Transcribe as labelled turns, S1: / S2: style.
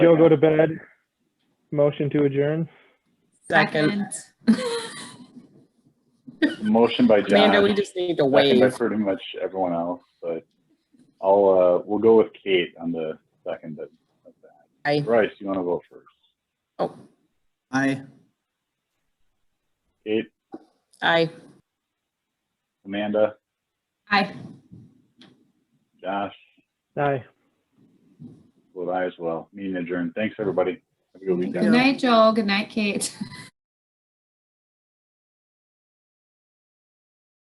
S1: Joe go to bed. Motion to adjourn.
S2: Second.
S3: Motion by
S2: Amanda, we
S3: John,
S2: just need to
S3: second by
S2: waive.
S3: pretty much everyone else, but I'll, uh, we'll go with Kate on the second of of that.
S2: Aye.
S3: Bryce, you want to vote first?
S4: Aye.
S3: Kate,
S2: Aye.
S3: Amanda,
S5: Aye.
S3: Josh,
S1: Aye.
S3: vote I as well. Meeting adjourned. Thanks, everybody. Have a good weekend.
S5: Good night, Joel. Good night, Kate.